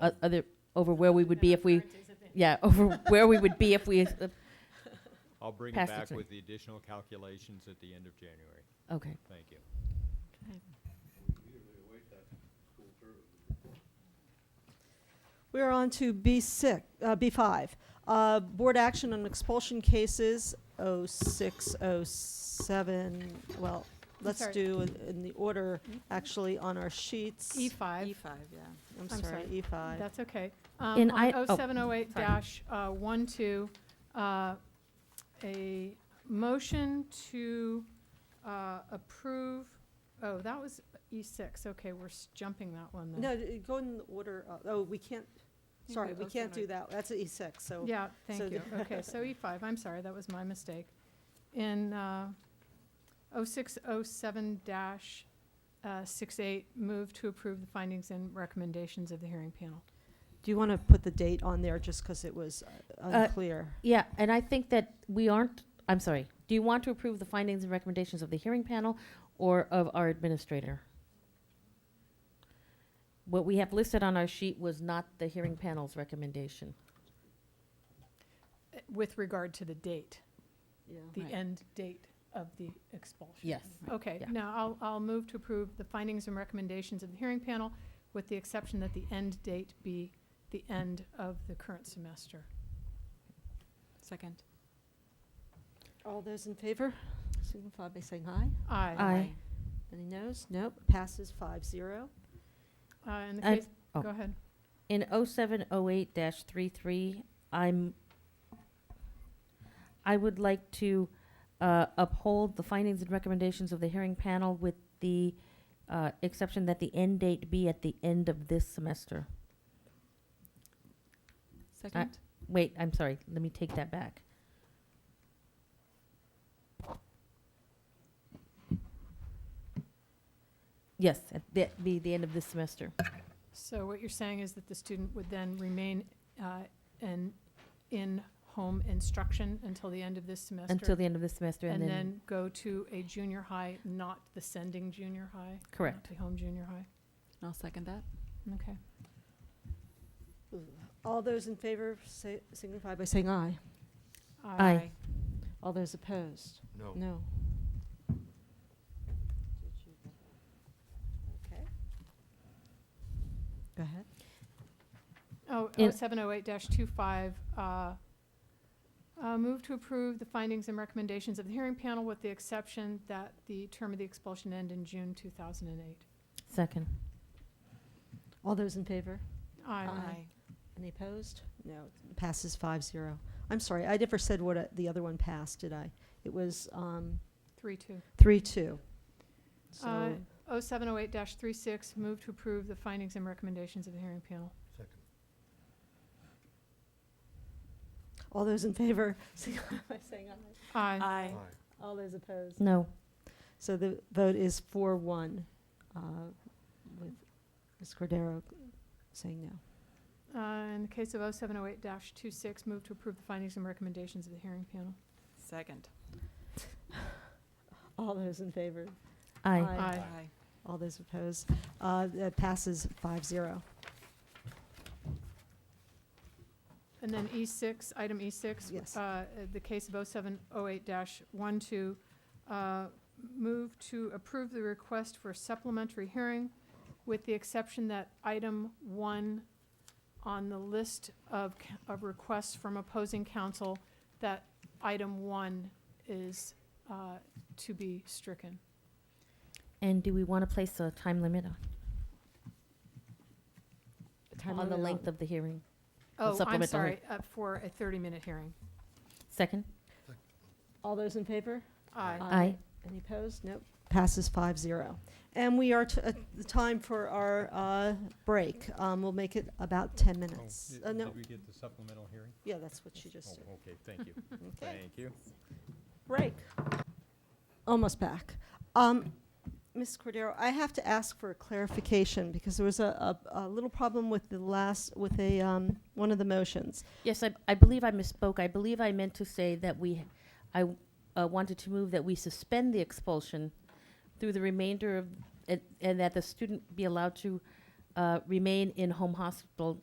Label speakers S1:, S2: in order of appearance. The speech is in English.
S1: o- other, over where we would be if we, yeah, over where we would be if we,
S2: I'll bring
S1: Pass
S2: it
S1: it
S2: back
S1: through.
S2: with the additional calculations at the end of January.
S1: okay.
S2: Thank you.
S3: We're on to B6, uh, B5. Uh, board action on expulsion cases 06, 07. Well, let's
S4: sorry.
S3: do in, in the order actually on our sheets. E
S4: E5,
S5: E5, yeah.
S3: I'm
S4: E I'm
S3: sorry, E
S4: sorry.
S3: E5.
S4: that's okay.
S1: In
S4: Um,
S1: I- oh,
S4: On 0708 dash uh, 12, uh, a motion to uh, approve, oh, that was E6, okay, we're s- jumping that one then.
S3: No, d- go in the order. Of, oh, we can't.
S5: You
S3: Sorry,
S5: do
S3: we
S5: both
S3: can't do
S5: tonight.
S3: that. That's E6. So
S4: Yeah,
S3: so
S4: thank you. Okay, so E5, I'm sorry, that was my mistake. In uh, 0607 dash uh, 68, move to approve the findings and recommendations of the hearing panel.
S3: do you want to put the date on there just because it was uh, unclear?
S1: Yeah, and I think that we aren't, I'm sorry, do you want to approve the findings and recommendations of the hearing panel or of our administrator? What we have listed on our sheet was not the hearing panel's recommendation.
S4: Uh, With regard to the date. the
S1: Right.
S4: end Oh. date of the expulsion.
S1: Yes.
S4: Okay,
S1: yeah.
S4: now I'll, I'll move to approve the findings and recommendations of the hearing panel with the exception that the end date be the end of the current semester.
S5: Second.
S3: All those in favor signify by saying aye.
S4: Aye.
S1: Aye.
S3: Any noes? Nope. Passes 5 0.
S4: Uh, in the
S1: I-
S4: case,
S1: oh.
S4: go ahead.
S1: In 0708-33, I'm, I would like to uh, uphold the findings and recommendations of the hearing panel with the uh, exception that the end date be at the end of this semester.
S5: Second?
S1: Wait, I'm sorry, let me take that back. Yes, at the, be the end of this semester.
S4: So what you're saying is that the student would then remain, uh, in, in home instruction until the end of this semester?
S1: Until the end of this semester
S4: And
S1: and then,
S4: then go to a junior high, not the sending junior high? not
S1: Correct.
S4: The home junior high,
S5: And I'll second that.
S4: okay.
S3: All those in favor say, signify by saying aye.
S1: Aye.
S3: All those opposed?
S2: No.
S3: No. Okay. Go ahead.
S4: Oh,
S1: In-
S4: 0708-25, uh, uh, move to approve the findings and recommendations of the hearing panel with the exception that the term of the expulsion end in June 2008.
S1: second.
S3: All those in favor?
S4: Aye.
S3: Any opposed? No. Passes five zero. I'm sorry, I never said what uh, the other one passed, did I? It was um,
S4: 3-2.
S3: three two.
S4: Uh, oh,
S3: So,
S4: 0708-36, move to approve the findings and recommendations of the hearing panel.
S3: all those in favor, signify by saying aye.
S4: Aye.
S5: Aye.
S3: All those opposed?
S1: No.
S3: So the vote is four one, uh, with Ms. Cordero saying no.
S4: Uh, In the case of 0708-26, move to approve the findings and recommendations of the hearing panel.
S5: Second.
S3: All those in favor?
S1: Aye.
S3: Aye. All those opposed? Uh, That passes five zero.
S4: And then E6, item E6.
S3: Yes.
S4: uh, The case of 0708-12, uh, move to approve the request for supplementary hearing with the exception that item one on the list of, c- of requests from opposing counsel, that item one is uh, to be stricken.
S1: And do we want to place a time limit on-
S3: Time
S1: on the
S3: limit
S1: length of the hearing?
S4: Oh, I'm
S1: supplemental
S4: sorry,
S1: hearing.
S4: uh, for a 30-minute hearing.
S1: Second?
S3: All those in favor?
S1: Uh,
S4: Aye.
S1: Aye.
S3: Any opposed? Nope. Passes five zero. And we are t- at the time for our uh, break. Um, We'll make it about 10 minutes. Uh, No,
S2: Oh, Did we get the supplemental hearing?
S3: yeah, that's what she just did.
S2: Oh, okay, thank you.
S3: Okay.
S2: Thank you.
S3: break. Almost back. Um, Ms. Cordero, I have to ask for a clarification because there was a, a, a little problem with the last, with a, um, one of the motions.
S1: Yes, I, I believe I misspoke. I believe I meant to say that we, I uh, wanted to move that we suspend the expulsion through the remainder of, and, and that the student be allowed to uh, remain in home hospital